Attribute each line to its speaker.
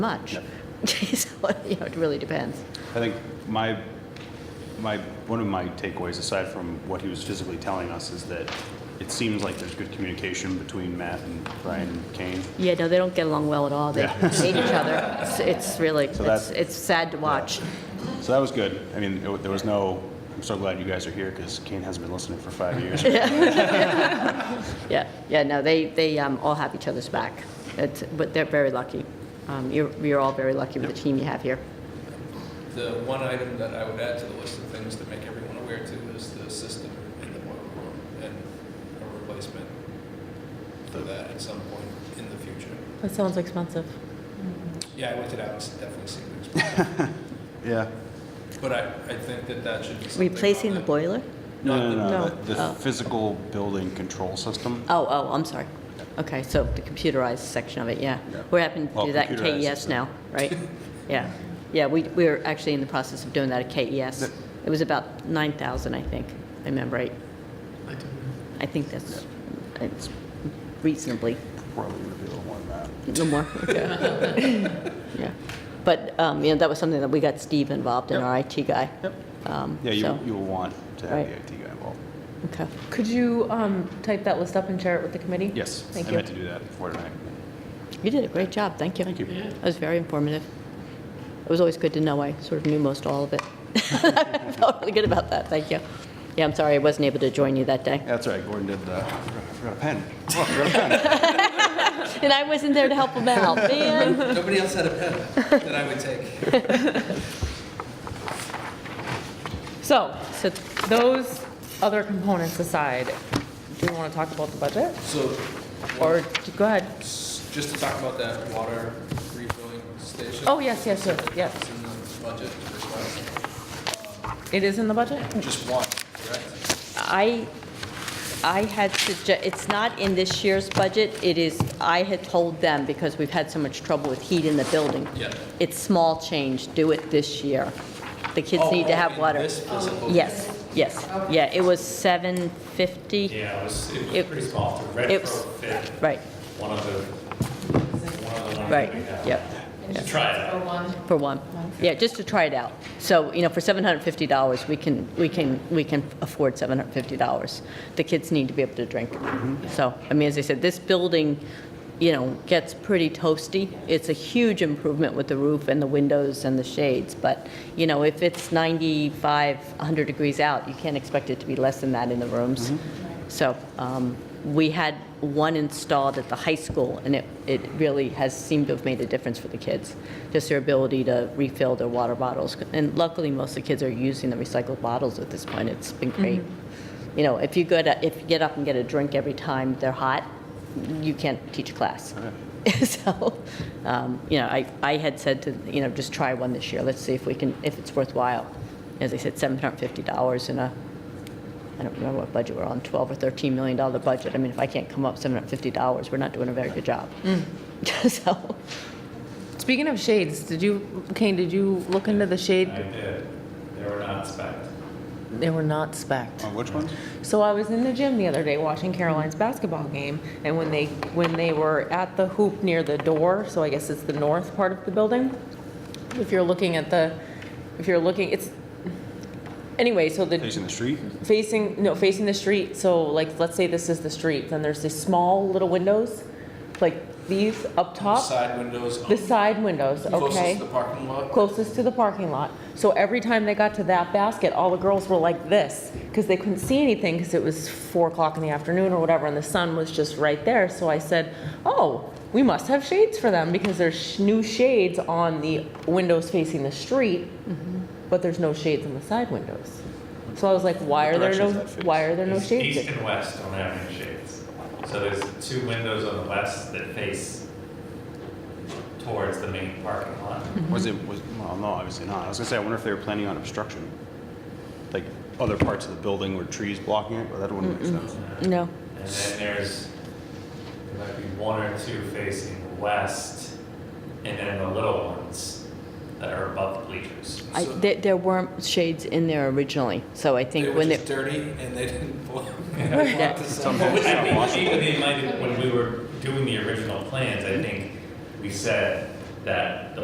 Speaker 1: much. So, you know, it really depends.
Speaker 2: I think my, my, one of my takeaways, aside from what he was physically telling us, is that it seems like there's good communication between Matt and Brian and Kane.
Speaker 1: Yeah, no, they don't get along well at all. They
Speaker 2: Yeah.
Speaker 1: hate each other. It's- It's really, it's,
Speaker 2: that-
Speaker 1: it's sad to watch.
Speaker 2: So that was good. I mean, it- there was no, I'm so glad you guys are here because Kane hasn't been listening for five years.
Speaker 1: Yeah, yeah, no, they, they um, all have each other's back. It's, but they're very lucky. Um, You're, you're all very lucky with the team you have here.
Speaker 3: The one item that I would add to the list of things to make everyone aware to is the system in the boiler room and a replacement for that at some point in the future.
Speaker 4: That sounds expensive.
Speaker 3: Yeah, I looked it out, it's definitely seemed expensive,
Speaker 2: Yeah.
Speaker 3: but I, I think that that should be something.
Speaker 4: Replacing
Speaker 3: on
Speaker 4: the
Speaker 3: that.
Speaker 4: boiler?
Speaker 2: No, no, no,
Speaker 4: No.
Speaker 2: no. The the
Speaker 1: Oh.
Speaker 2: physical building control system.
Speaker 1: Oh, oh, I'm sorry. Okay, so the computerized section of it, yeah.
Speaker 2: Yeah.
Speaker 1: We're having to
Speaker 2: Well,
Speaker 1: do that in
Speaker 2: computerized
Speaker 1: KES
Speaker 2: system.
Speaker 1: now, right? Yeah, yeah, we, we're actually in the process of doing that at KES. It was about 9,000, I think, I remember right. I think that's, it's reasonably,
Speaker 2: Probably gonna be a little more than that.
Speaker 1: no more. Yeah, But, um, you know, that was something that we got Steve involved in, our IT guy. Um,
Speaker 2: Yeah, you,
Speaker 1: so-
Speaker 2: you will want to have
Speaker 1: Right.
Speaker 2: the IT guy involved.
Speaker 1: Okay.
Speaker 4: Could you um, type that list up and share it with the committee?
Speaker 2: Yes, I
Speaker 4: Thank you.
Speaker 2: meant to do that before tonight.
Speaker 1: You did a great job, thank you.
Speaker 2: Thank you. Yeah.
Speaker 1: That was very informative. It was always good to know, I sort of knew most all of it. I felt really good about that, thank you. Yeah, I'm sorry I wasn't able to join you that day.
Speaker 2: That's right, Gordon did the, uh, I forgot a pen. Oh, I forgot a pen.
Speaker 1: And I wasn't there to help him out, man.
Speaker 3: Nobody else had a pen that I would take.
Speaker 4: So, so those other components aside, do we want to talk about the budget?
Speaker 3: So,
Speaker 4: Or, go ahead.
Speaker 3: s- just to talk about that water refilling station.
Speaker 4: Oh, yes, yes, yes, yes.
Speaker 3: It's in the budget request. Um,
Speaker 4: It is in the budget?
Speaker 3: Just one, correct?
Speaker 1: I, I had suggested, it's not in this year's budget, it is, I had told them, because we've had so much trouble with heat in the building.
Speaker 3: Yeah.
Speaker 1: It's small change, do it this year. The kids
Speaker 3: Oh,
Speaker 1: need to
Speaker 3: oh,
Speaker 1: have
Speaker 3: in
Speaker 1: water.
Speaker 3: this physical-
Speaker 1: Yes, yes, yeah, it was 750.
Speaker 5: Yeah, it was, it was
Speaker 1: It-
Speaker 5: pretty small, the
Speaker 1: it was-
Speaker 5: retrofit,
Speaker 1: Right,
Speaker 5: one of the, one of the ones
Speaker 1: right,
Speaker 5: that we have.
Speaker 1: yep,
Speaker 5: To try it out.
Speaker 1: for one. Yeah, just to try it out. So, you know, for $750, we can, we can, we can afford $750. The kids need to be able to drink. So, I mean, as I said, this building, you know, gets pretty toasty. It's a huge improvement with the roof and the windows and the shades, but, you know, if it's 95, 100 degrees out, you can't expect it to be less than that in the rooms. So um, we had one installed at the high school, and it, it really has seemed to have made a difference for the kids, just their ability to refill their water bottles. And luckily, most of the kids are using the recycled bottles at this point. It's been great. You know, if you go to, if you get up and get a drink every time they're hot, you can't teach a class. So, um, you know, I, I had said to, you know, just try one this year. Let's see if we can, if it's worthwhile. As I said, $750 in a I don't remember what budget we're on, 12 or 13 million dollar budget. I mean, if I can't come up 750 dollars, we're not doing a very good job. So,
Speaker 4: Speaking of shades, did you, Kane, did you look into the
Speaker 5: I
Speaker 4: shade?
Speaker 5: did, they were not spec'd.
Speaker 4: They were not spec'd.
Speaker 2: On which one?
Speaker 4: So I was in the gym the other day watching Caroline's basketball game, and when they, when they were at the hoop near the door, so I guess it's the north part of the building, if you're looking at the, if you're looking, it's, anyway, so the,
Speaker 2: Facing the street?
Speaker 4: facing, no, facing the street, so like, let's say this is the street, then there's these small little windows, like these up top,
Speaker 3: Side windows.
Speaker 4: the side windows, okay?
Speaker 3: Closest to the parking lot.
Speaker 4: closest to the parking lot. So every time they got to that basket, all the girls were like this, because they couldn't see anything, because it was four o'clock in the afternoon or whatever, and the sun was just right there. So I said, oh, we must have shades for them, because there's sh- new shades on the windows facing the street,
Speaker 2: Mm-hmm.
Speaker 4: but there's no shades on the side windows. So I was like, why
Speaker 2: What
Speaker 4: are there
Speaker 2: direction
Speaker 4: no,
Speaker 2: does that face?
Speaker 4: why are there no
Speaker 5: East-
Speaker 4: shades?
Speaker 5: East and west don't have any shades. So there's two windows on the west that face towards the main parking lot.
Speaker 2: Was it, was, well, no, obviously not. I was gonna say, I wonder if they were planning on obstruction. Like, other parts of the building where trees blocking it, but that wouldn't make sense.
Speaker 1: no.
Speaker 5: And then there's, there might be one or two facing west, and then the little ones that are above the bleachers.
Speaker 1: I,
Speaker 3: So-
Speaker 1: there, there weren't shades in there originally, so I
Speaker 3: They
Speaker 1: think
Speaker 3: were
Speaker 1: when they.
Speaker 3: just dirty and they didn't pull them.
Speaker 1: Yeah.
Speaker 5: Well, I think even they might, have- when we were doing the original plans, I think we said, that the